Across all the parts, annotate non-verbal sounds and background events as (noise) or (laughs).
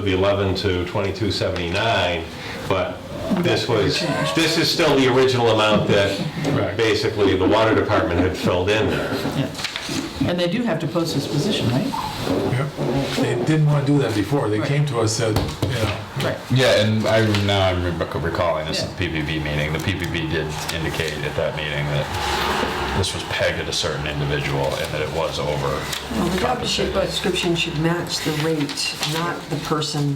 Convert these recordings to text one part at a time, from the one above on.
the 11 to 2279, but this was, this is still the original amount that basically the water department had filled in there. Yeah. And they do have to post this position, right? Yep. They didn't want to do that before. They came to us, said, you know, Right. Yeah, and I now I'm rec- recalling this is Yeah. the PBB meeting. The PBB did indicate at that meeting that this was pegged at a certain individual and that it was over. Well, the job uh, description should match the rate, not the person.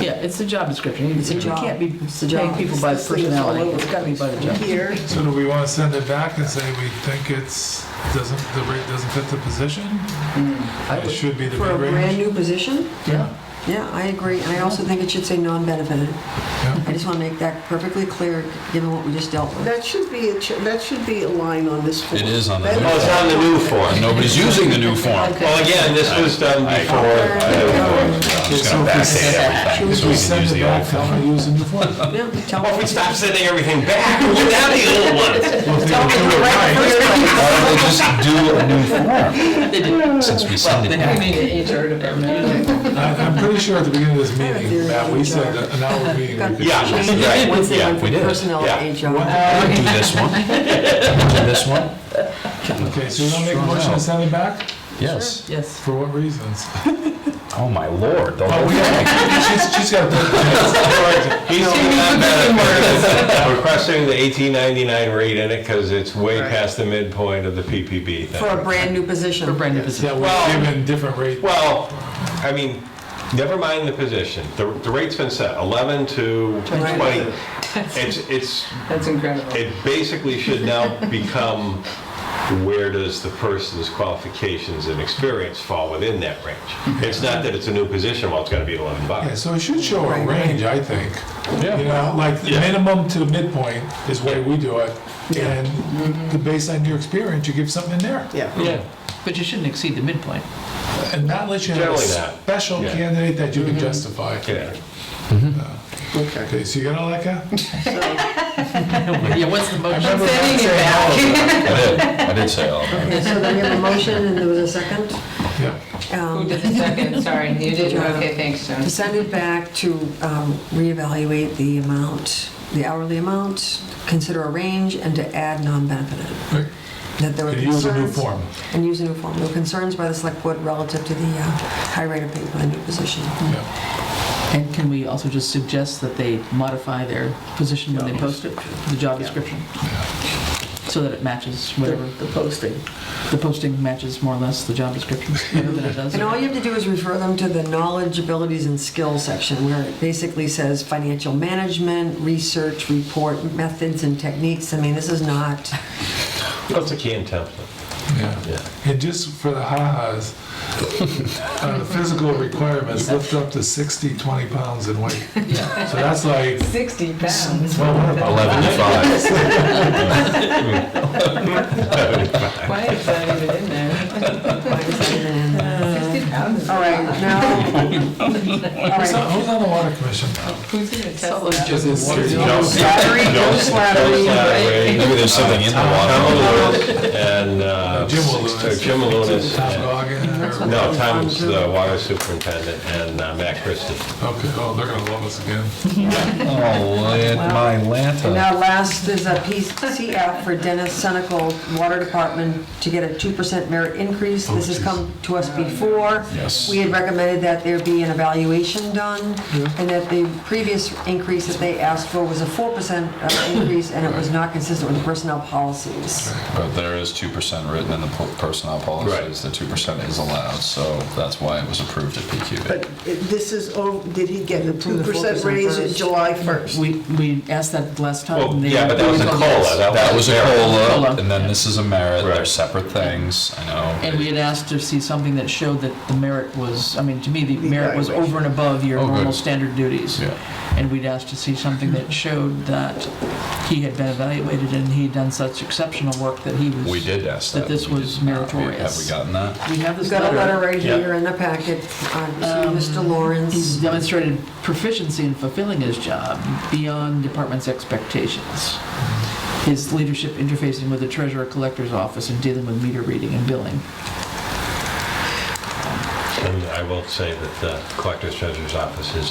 Yeah, it's a job description. It's a job. You can't be It's a paying job. people by This thing's all personality. over It's gotta be by the job. Here. so do we want to send it back and say we think it's, doesn't, the rate doesn't fit the position? I It would- should be the For a big brand range? new position? Yeah. Yeah, I agree. I also think it should say non-benefited. Yeah. I just want to make that perfectly clear, given what we just dealt with. That should be, a ch- that should be a line on this form. It is on the That- new Oh, it's on the new form. Nobody's using the new form. Okay. Well, again, this was done I- before. I'm just gonna Okay, so backdate everything If so we we can send use it the back, old tell them form. to use the new form. Yeah, tell Well, if we stop sending everything back, we'll get out of the old ones. Well, if they do it right, Why don't they just do a new form They did. since we send it They have back? me in the HR department. I- I'm pretty sure at the beginning of this meeting, theory Matt, we in said charge. that an hour meeting. we could- Yeah, right, Once they yeah, went we from did. personnel Yeah. to HR. I would do this one. I would do this one. Okay, so you don't make a motion to send it back? Yes. Yes. For what reasons? Oh my lord. The Oh, whole we got, she's, she's got, He's (laughs) requesting the 1899 rate in it because it's way past the midpoint of the PPP. thing. For a brand new position. For a brand new position. yeah, Well- we're given different rate. Well, I mean, never mind the position. The, the rate's been set, 11 to 20. It's, it's, That's incredible. it basically should now become, where does the person's qualifications and experience fall within that range? It's not that it's a new position, well, it's gotta be 11 Yeah, bucks. so it should show a range, I think. Yeah. You know, like the Yeah. minimum to midpoint is the way we do it. And the- based on your experience, you give something in there. Yeah. Yeah. But you shouldn't exceed the midpoint. And not let you have a Generally that. special Yeah. candidate that you can justify. Yeah. Okay. Okay, so you got all that, Ken? Yeah, what's the I motion? remember Matt saying all of I did. I did say all of that. Okay, so then you have a motion and there was a second. that. Yeah. Um, Who did the second? (laughs) Sorry, you did? Yeah. Okay, thanks, John. To send it back to um, reevaluate the amount, the hourly amount, consider a range, and to add non-benefited. Right. That there were And use a new concerns- form. And use a new form. There were concerns by the select board relative to the uh, high rate of pay for the new position. Yeah. And can we also just suggest that they modify their position when they post it, the job description? So that it matches whatever. The posting. The posting matches more or less the job description, better than it does. And all you have to do is refer them to the knowledge, abilities, and skills section, where it basically says financial management, research, report, methods, and techniques. I mean, this is not, That's a key in template. Yeah. And just for (laughs) the ha-has, uh, the physical requirements, lift up to 60, 20 pounds in weight. So that's like, 60 pounds. well, what about? 11 to 5. (laughs) Why is that even in there? why is that even in there? 60 pounds. All right, now, all Who's right. on- who's on the water commission? Who's gonna test that? Just Joe Slattery. Joe Slattery. Maybe there's something in the Tom water. Alounis and, uh, Jim Walunas. Jim Alounis Tom and- Goggin? or- No, Tom's the water superintendent and uh, Matt Christie. Okay, oh, they're gonna love us again. Oh, land, my And lanta. now last is a PCF for Dennis Senical, Water Department, to get a 2% merit increase. This has come to us before. Yes. We had recommended that there be an evaluation done, and that the previous increase that they asked for was a 4% increase, and it was not consistent with personnel policies. But there is 2% written in the po- personnel policies, the 2% is allowed, so that's why it was approved at But PQB. it- this is, ov- did he get a From the 2% 4% raise first. July 1st? We, we asked that last time. Well, and they- Oh, yeah, but that was a COLA. That was a COLA. COLA, and then this is a merit, Right. they're separate things, I And we know. had asked to see something that showed that the merit was, I mean, to me, the merit was over and above your Oh, good. normal standard duties. Yeah. And we'd asked to see something that showed that he had been evaluated and he'd done such exceptional work that he was. We did ask that. That this We was did not. We- Have we meritorious. gotten that? We have We've this got a letter letter. right Yeah. here in the packet uh, to Mr. He's Lawrence. demonstrated proficiency in fulfilling his job beyond department's expectations. His leadership interfacing with the treasurer collector's office and dealing with meter reading and billing. And I will say that the collector's treasurer's office is